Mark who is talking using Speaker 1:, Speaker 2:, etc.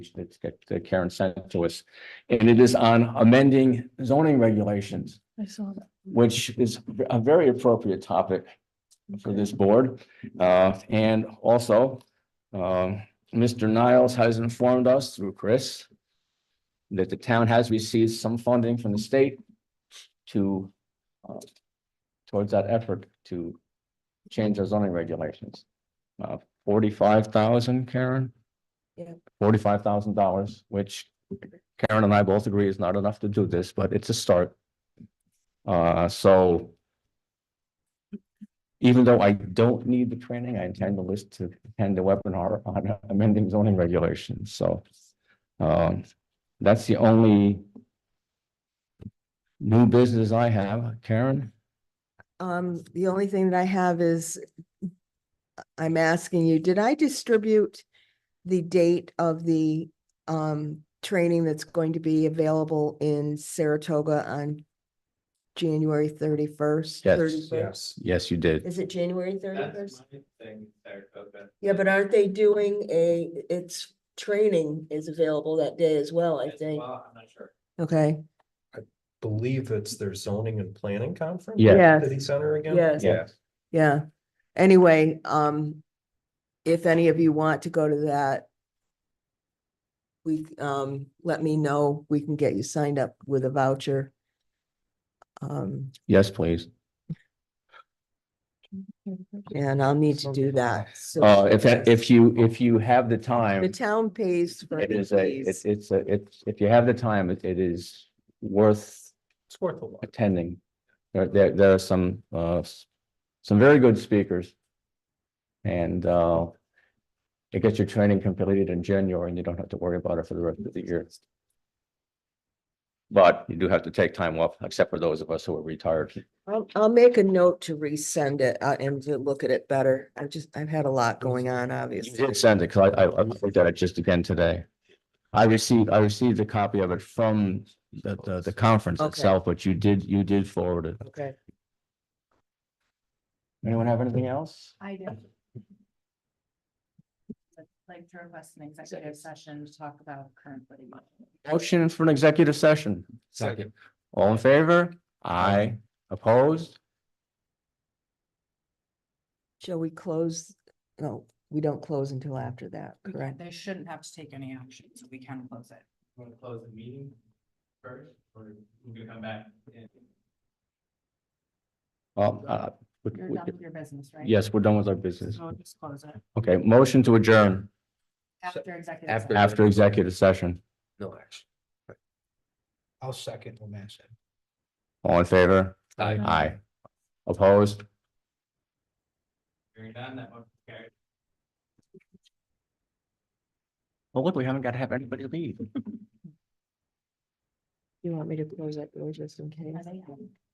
Speaker 1: that- that that Karen sent to us. And it is on amending zoning regulations,
Speaker 2: I saw that.
Speaker 1: which is a very appropriate topic for this board. Uh, and also, um, Mr. Niles has informed us through Chris that the town has received some funding from the state to uh, towards that effort to change our zoning regulations. Uh, forty-five thousand, Karen?
Speaker 2: Yeah.
Speaker 1: Forty-five thousand dollars, which Karen and I both agree is not enough to do this, but it's a start. Uh, so even though I don't need the training, I intend to list to attend the webinar on amending zoning regulations, so. Um, that's the only. New business I have, Karen,
Speaker 2: Um, the only thing that I have is I'm asking you, did I distribute the date of the um training that's going to be available in Saratoga on January thirty-first?
Speaker 1: Yes.
Speaker 3: Yes.
Speaker 1: yes, you did,
Speaker 2: Is it January
Speaker 3: That's
Speaker 2: thirty-first?
Speaker 3: my thing, Saratoga.
Speaker 2: Yeah, but aren't they doing a, it's training is available that day as well, I
Speaker 3: As
Speaker 2: think.
Speaker 3: well, I'm not sure.
Speaker 2: Okay,
Speaker 4: believe it's their zoning and planning conference?
Speaker 1: Yeah.
Speaker 2: Yes.
Speaker 4: City Center again?
Speaker 2: Yes.
Speaker 1: Yeah.
Speaker 2: yeah. Anyway, um, if any of you want to go to that, we, um, let me know. We can get you signed up with a voucher. Um,
Speaker 1: yes, please.
Speaker 2: and I'll need to do that. So
Speaker 1: Uh, if, if you, if you have the time.
Speaker 2: The town pays for
Speaker 1: It
Speaker 2: any
Speaker 1: is a, it's,
Speaker 2: fees.
Speaker 1: it's a, it's, if you have the time, it it is worth
Speaker 4: It's worth a lot.
Speaker 1: attending. There, there, there are some, uh, s- some very good speakers. And, uh, it gets your training completed in January and you don't have to worry about it for the rest of the year. But you do have to take time off, except for those of us who are retired.
Speaker 2: I'll, I'll make a note to resend it uh, and to look at it better. I just, I've had a lot going on,
Speaker 1: You
Speaker 2: obviously.
Speaker 1: did send it, because I, I, I looked at it just again today. I received, I received a copy of it from the, the, the conference
Speaker 2: Okay.
Speaker 1: itself, but you did, you did forward it.
Speaker 2: Okay.
Speaker 1: Anyone have anything else?
Speaker 5: I do. I'd Like to request an executive session to talk about current litigation.
Speaker 1: Motion for an executive session.
Speaker 4: Second.
Speaker 1: All in favor? Aye. Opposed?
Speaker 2: Shall we close? No, we don't close until after that,
Speaker 5: We can't-
Speaker 2: correct?
Speaker 5: They shouldn't have to take any action, so we can close it.
Speaker 3: Want to close the meeting first, or we can come back and
Speaker 1: Well, uh, we-
Speaker 5: You're
Speaker 1: we-
Speaker 5: done with your business, right?
Speaker 1: yes, we're done with our business.
Speaker 5: So just close it
Speaker 1: Oh. Okay, motion to adjourn
Speaker 5: after executive.
Speaker 4: after-
Speaker 5: session.
Speaker 1: after executive session.
Speaker 4: No action. I'll second what Matt said.
Speaker 1: All in favor? Aye. Opposed?
Speaker 3: you're done, that one, Gary.
Speaker 1: Well, look, we haven't got to have anybody leave.
Speaker 2: You want me to close that door just in case?
Speaker 5: Are they-